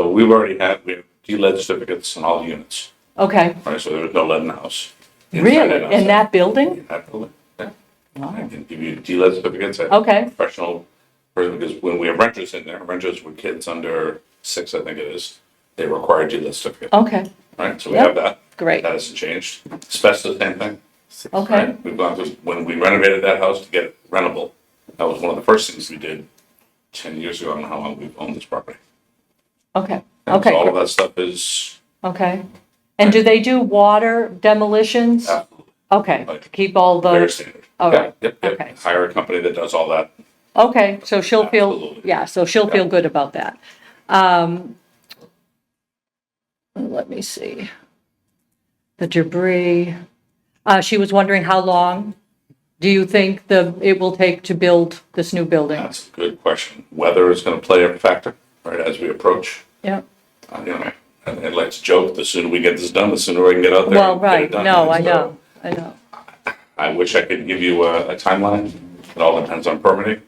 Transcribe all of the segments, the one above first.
we've already had, we have D-lead certificates in all the units, Okay, right? So there's no lead in the house. Inside and really? In outside. that building? In that building. yeah. I Wow. can give you D-lead certificates. I have a Okay. Professional, person, because when we have renters in there, renters with kids under six, I think it is, they require D-lead certificate, Okay, right? So we Oh. Yep. have that. great. That hasn't changed. Asbestos, same thing. Okay, We've gone through, when we renovated that house to get it rentable, that was one of the first things we did ten years ago. I don't know how long we've owned this property. okay, And so All of okay, that stuff is okay. And do they do water demolitions? absolutely Okay, Like- keep all very those, standard. all Yeah, right, Yep, okay. yep. Hire a company that does all that. okay, so she'll feel, Absolutely. yeah, so she'll Yeah. feel good about that. Um, Let me see. The debris, uh, she was wondering how long do you think the, it will take to build this new building? That's a good question. Weather is gonna play a factor, right, as we approach. Yeah. Uh, You know, and, and let's joke, the sooner we get this done, the sooner I can get out there. Well, and get it right, done. no, And I so know, I know. I wish I could give you a, a timeline. It all depends on permitting.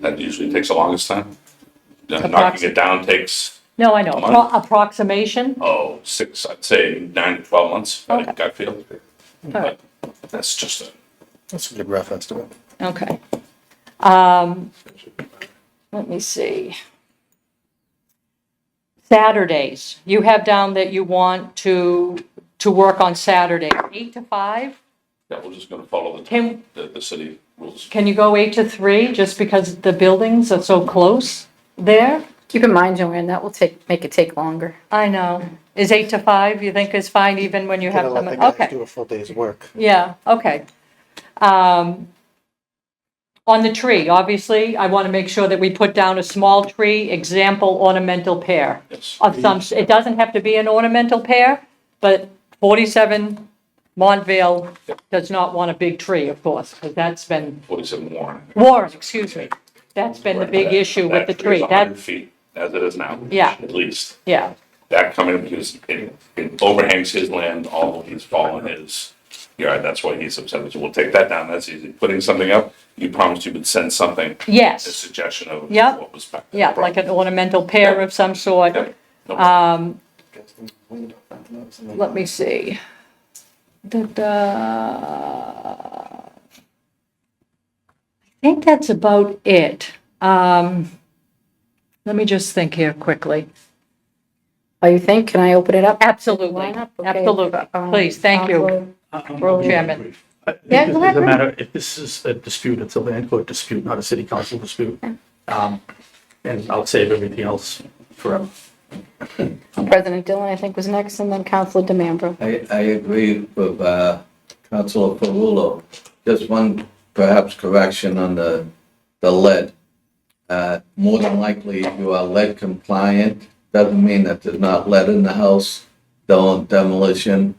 That usually takes the longest time. Uh, Knocking it down takes No, I know, A month? Appro- approximation, oh, six, I'd say nine to twelve months, I Okay. think, gut feel. But that's just a, That's a good rough estimate. okay. Um, let me see. Saturdays, you have down that you want to, to work on Saturday, eight to five? yeah, we're just gonna follow the, Can- the, the city rules. Can you go eight to three, just because the buildings are so close there? Keep in mind, Joanne, that will take, make it take longer. I know, is eight to five, you think is fine even when you have Gotta let some, the guys okay. Do a full day's work. Yeah, okay. Um, On the tree, obviously, I want to make sure that we put down a small tree, example ornamental pear Yes, of some, it doesn't have to be an ornamental pear, but 47 Montvale does not want a big tree, of course, because that's been, forty-seven Warren. Warren, excuse me, that's been the big issue with the tree. Hundred That's, feet, as it is now. Yeah. At least, yeah, that coming, because it, it overhangs his land, all of his fallen his yard, that's why he's upset, so we'll take that down, that's easy. Putting something up, you promised you would send something, a yes, suggestion of Yep. what was back. yeah, like Uh, an ornamental pear of some sort. Yep. No, let me see. Da-da. I think that's about it. Um, let me just think here quickly. Oh, you think? Can I open it up? Absolutely, Lineup? Okay. absolutely. Um, Please, thank you, I'll be Chairman. brief. I think Yeah, this go is a ahead. matter, if this is a dispute, it's a land court dispute, not a city council dispute. Um, And I'll save everything else forever. President Dillon, I think, was next, and then Counselor DeMambro. I, I agree with uh, Councilor Perullo. Just one perhaps correction on the, the lead. Uh, More than likely, if you are lead compliant, doesn't mean that there's not lead in the house, though demolition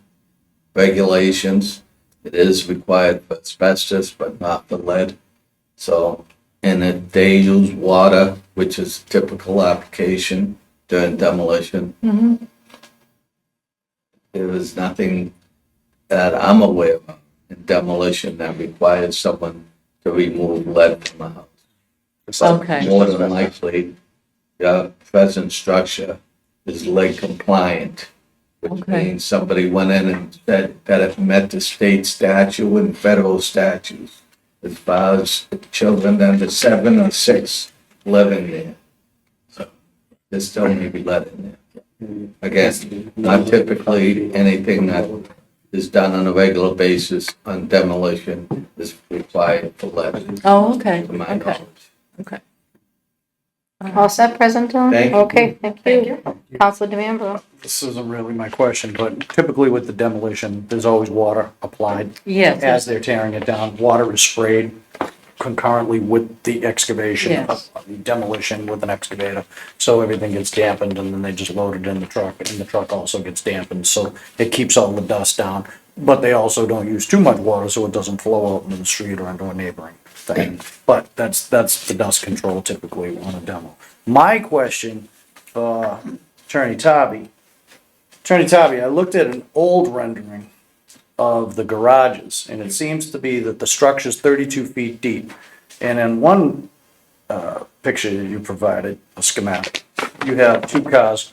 regulations. It is required for asbestos, but not for lead. So, and if they use water, which is typical application during demolition, there is nothing that I'm aware of in demolition that requires someone to remove lead from a house. Okay. More than likely, the present structure is lead compliant, which Okay. means somebody went in and said that it met the state statute and federal statutes as far as children under seven or six living there. So there still may be lead in there. Again, not typically anything that is done on a regular basis on demolition is required for lead, Oh, okay, to my okay, knowledge. okay. All set, President Dillon? Thank you. Okay, thank you. Counselor DeMambro. This isn't really my question, but typically with the demolition, there's always water applied Yes, As they're tearing it down, water is sprayed concurrently with the excavation, Yes. uh, demolition with an excavator. So everything gets dampened and then they just load it in the truck and the truck also gets dampened. So it keeps all the dust down. But they also don't use too much water so it doesn't flow out into the street or into a neighboring thing. But that's, that's the dust control typically on a demo. My question for Attorney Tobby, Attorney Tobby, I looked at an old rendering of the garages, and it seems to be that the structure's thirty-two feet deep. And in one, uh, picture that you provided, a schematic, you have two cars